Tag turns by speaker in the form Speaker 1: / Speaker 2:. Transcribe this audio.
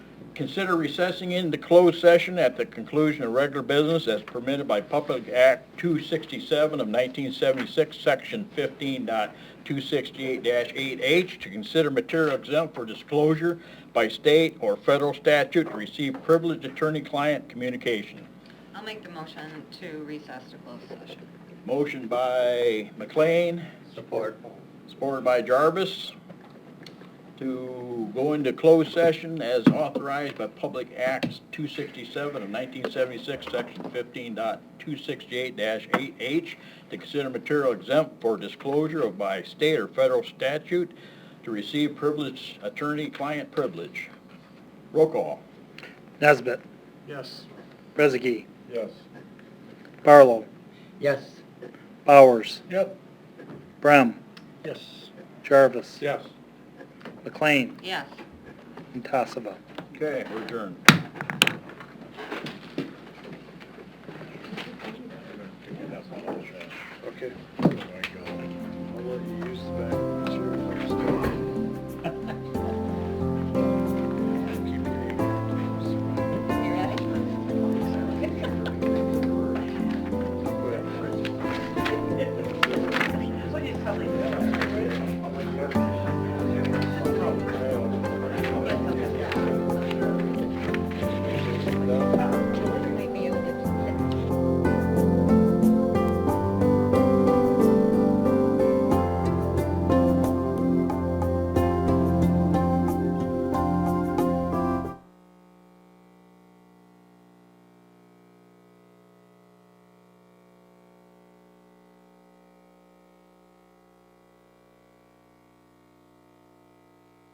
Speaker 1: consider recessing into closed session at the conclusion of regular business as permitted by Public Act 267 of 1976, Section 15.268-8H, to consider material exempt for disclosure by state or federal statute to receive privileged attorney-client communication.
Speaker 2: I'll make the motion to recess to closed session.
Speaker 1: Motion by McLean. Support. Supported by Jarvis to go into closed session as authorized by Public Acts 267 of 1976, Section 15.268-8H, to consider material exempt for disclosure of by state or federal statute to receive privilege, attorney-client privilege. Roll call.
Speaker 3: Nesbit,
Speaker 4: Yes.
Speaker 3: Rezegi,
Speaker 4: Yes.
Speaker 3: Barlow,
Speaker 2: Yes.
Speaker 3: Bowers,
Speaker 4: Yep.
Speaker 3: Brem,
Speaker 4: Yes.
Speaker 3: Jarvis,
Speaker 4: Yes.
Speaker 3: McLean,
Speaker 2: Yes.
Speaker 3: and Tassava.
Speaker 1: Okay, we're adjourned.